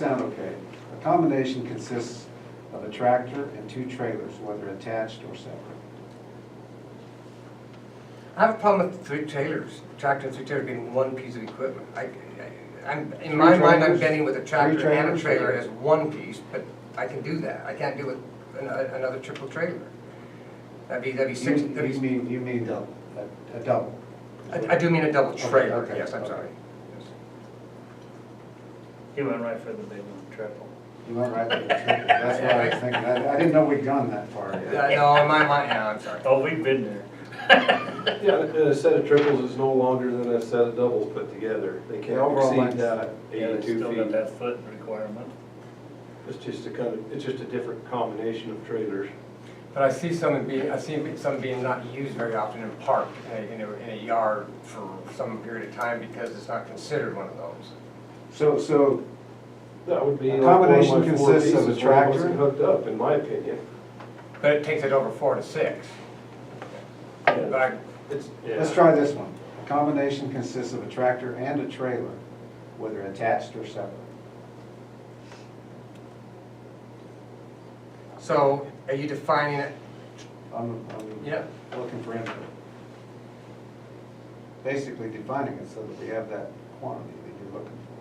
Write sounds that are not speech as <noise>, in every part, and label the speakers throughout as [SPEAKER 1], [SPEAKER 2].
[SPEAKER 1] Sound okay. A combination consists of a tractor and two trailers, whether attached or separate.
[SPEAKER 2] I have a problem with three trailers, tractor and three trailer being one piece of equipment. I, I- I'm, in my
[SPEAKER 1] Three
[SPEAKER 2] mind, I'm
[SPEAKER 1] trailers?
[SPEAKER 2] betting with a tractor
[SPEAKER 1] Three
[SPEAKER 2] and a
[SPEAKER 1] trailers?
[SPEAKER 2] trailer as one piece, but I can do that. I can't do with an- a- another triple trailer. That'd be, that'd be six,
[SPEAKER 1] You
[SPEAKER 2] that'd
[SPEAKER 1] you
[SPEAKER 2] be,
[SPEAKER 1] mean, you mean double, a- a double.
[SPEAKER 2] I I do mean a double
[SPEAKER 1] Okay,
[SPEAKER 2] trailer,
[SPEAKER 1] okay,
[SPEAKER 2] yes, I'm
[SPEAKER 1] okay.
[SPEAKER 2] sorry. Yes.
[SPEAKER 3] He went right for the big one, triple.
[SPEAKER 1] You went right for the triple, that's what I was thinking. I I didn't know we'd gone that far yet.
[SPEAKER 2] Uh, No, in my mind, no, I'm sorry.
[SPEAKER 3] Oh, we've been there.
[SPEAKER 4] Yeah, and a set of triples is no longer than a set of doubles put together. They
[SPEAKER 1] The
[SPEAKER 4] can't
[SPEAKER 1] overall
[SPEAKER 4] exceed
[SPEAKER 1] length.
[SPEAKER 4] that
[SPEAKER 3] Yeah, they still got
[SPEAKER 4] eighty-two feet.
[SPEAKER 3] that foot requirement.
[SPEAKER 4] It's just a kind of, it's just a different combination of trailers.
[SPEAKER 2] <laughs> But I see some being, I see some being not used very often in park, in a, in a- in a yard for some period of time because it's not considered one of those.
[SPEAKER 1] So, so
[SPEAKER 4] That would be
[SPEAKER 1] A
[SPEAKER 4] like one of
[SPEAKER 1] combination
[SPEAKER 4] my four
[SPEAKER 1] consists
[SPEAKER 4] pieces,
[SPEAKER 1] of a
[SPEAKER 4] one wasn't
[SPEAKER 1] tractor?
[SPEAKER 4] hooked up, in my opinion.
[SPEAKER 2] But it takes it over four to six. But I-
[SPEAKER 4] It's,
[SPEAKER 1] let's
[SPEAKER 4] yeah,
[SPEAKER 1] try this one. A combination consists of a tractor and a trailer, whether attached or separate.
[SPEAKER 2] So are you defining it?
[SPEAKER 1] I'm, I'm
[SPEAKER 2] Yeah.
[SPEAKER 1] looking for input. Basically defining it so that we have that quantity that you're looking for.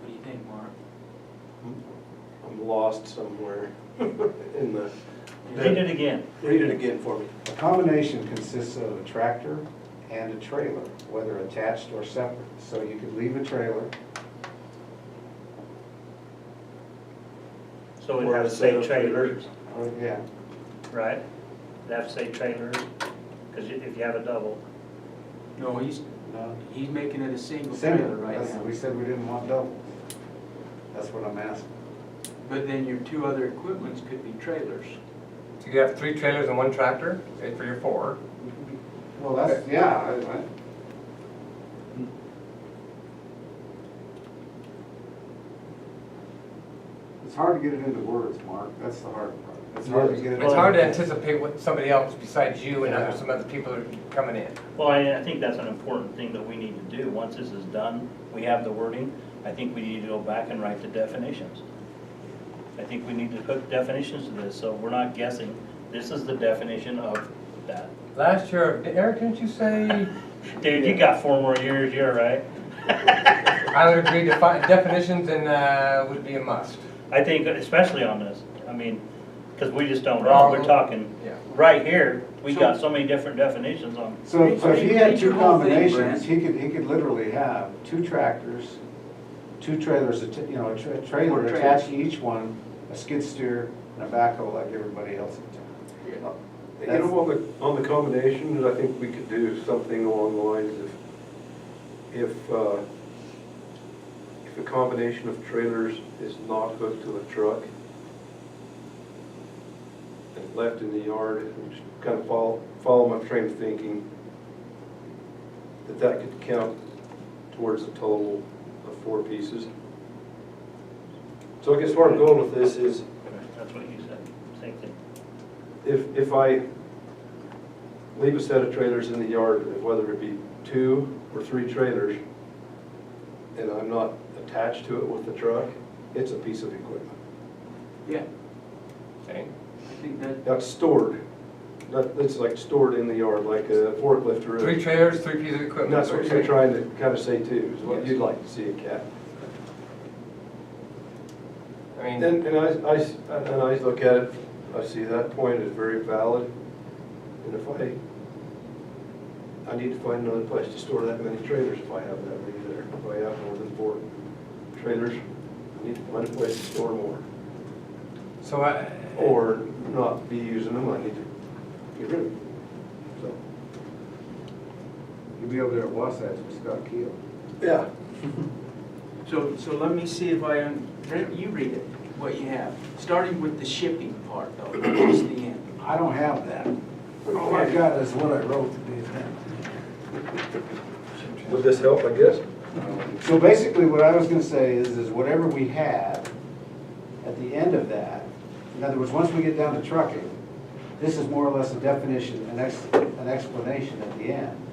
[SPEAKER 5] What do you think, Mark?
[SPEAKER 4] I'm lost somewhere <laughs> in the,
[SPEAKER 3] Read it again.
[SPEAKER 4] read it again for me.
[SPEAKER 1] A combination consists of a tractor and a trailer, whether attached or separate. So you could leave a trailer,
[SPEAKER 3] So we'd
[SPEAKER 4] Or
[SPEAKER 3] have
[SPEAKER 4] a
[SPEAKER 3] to
[SPEAKER 4] set
[SPEAKER 3] say
[SPEAKER 4] of
[SPEAKER 3] trailers,
[SPEAKER 1] or, yeah,
[SPEAKER 3] right? We'd have to say trailers, because if you have a double,
[SPEAKER 5] No, he's,
[SPEAKER 1] no,
[SPEAKER 5] he's making it a single trailer
[SPEAKER 1] single.
[SPEAKER 5] right
[SPEAKER 1] That's- We
[SPEAKER 5] now.
[SPEAKER 1] said we didn't want doubles. That's what I'm asking.
[SPEAKER 5] But then your two other equipments could be trailers.
[SPEAKER 2] So you could have three trailers and one tractor, say for your four.
[SPEAKER 1] Well, that's, yeah, I- I- It's hard to get it into words, Mark. That's the hard part. It's hard to get it.
[SPEAKER 2] It's hard to anticipate what somebody else besides you and other, some other people are coming in.
[SPEAKER 3] well, I, I think that's an important thing that we need to do. Once this is done, we have the wording, I think we need to go back and write the definitions. I think we need to put definitions to this, so we're not guessing. This is the definition of that.
[SPEAKER 2] Last year, Eric, didn't you say,
[SPEAKER 3] Dude, you got four more years, you're right.
[SPEAKER 2] I would agree defi- definitions and, uh, would be a must.
[SPEAKER 3] I think especially on this, I mean, because we just don't know,
[SPEAKER 2] Well,
[SPEAKER 3] we're talking,
[SPEAKER 2] yeah.
[SPEAKER 3] right here, we got so many different definitions on,
[SPEAKER 1] So, so if he
[SPEAKER 5] Read-
[SPEAKER 1] had
[SPEAKER 5] read
[SPEAKER 1] two
[SPEAKER 5] your whole thing,
[SPEAKER 1] combinations,
[SPEAKER 5] Brent.
[SPEAKER 1] he could, he could literally have two tractors, two trailers, atta- you know, a tra-
[SPEAKER 5] Four
[SPEAKER 1] trailer
[SPEAKER 5] trailers.
[SPEAKER 1] attached to each one, a skid steer and a backhoe like everybody else in town.
[SPEAKER 4] You know, on the, on the combinations, I think we could do something along the lines of, if, uh, if a combination of trailers is not hooked to a truck and left in the yard, and just kind of follow, follow my train of thinking, that that could count towards a total of four pieces. So I guess where I'm going with this is,
[SPEAKER 3] that's what you said, same thing.
[SPEAKER 4] if, if I leave a set of trailers in the yard, whether it be two or three trailers, and I'm not attached to it with the truck, it's a piece of equipment.
[SPEAKER 5] Yeah,
[SPEAKER 2] Okay.
[SPEAKER 5] I think that,
[SPEAKER 4] That's stored, that, that's like stored in the yard, like a forklift or
[SPEAKER 2] Three
[SPEAKER 4] a.
[SPEAKER 2] trailers, three pieces of
[SPEAKER 4] And
[SPEAKER 2] equipment.
[SPEAKER 4] that's what you're trying to kind of say too, is what
[SPEAKER 5] Yes.
[SPEAKER 4] you'd like to see a cat.
[SPEAKER 2] I
[SPEAKER 4] And,
[SPEAKER 2] mean,
[SPEAKER 4] and I, I, and I look at it, I see that point is very valid, and if I, I need to find another place to store that many trailers if I have that many there, if I have more than four trailers, I need to find a place to store more.
[SPEAKER 2] so I.
[SPEAKER 4] Or not be using them, I need to get rid of them, so.
[SPEAKER 1] You'd be over there at Wasatch with Scott Keel.
[SPEAKER 4] Yeah.
[SPEAKER 5] so, so let me see if I, un- Brent, you read it, what you have, starting with the shipping part though, towards the end.
[SPEAKER 1] I don't have that. Oh All I've got is what I wrote today.
[SPEAKER 4] Would this help, I guess?
[SPEAKER 1] So basically, what I was gonna say is, is whatever we have at the end of that, in other words, once we get down to trucking, this is more or less a definition, an ex, an explanation at the end.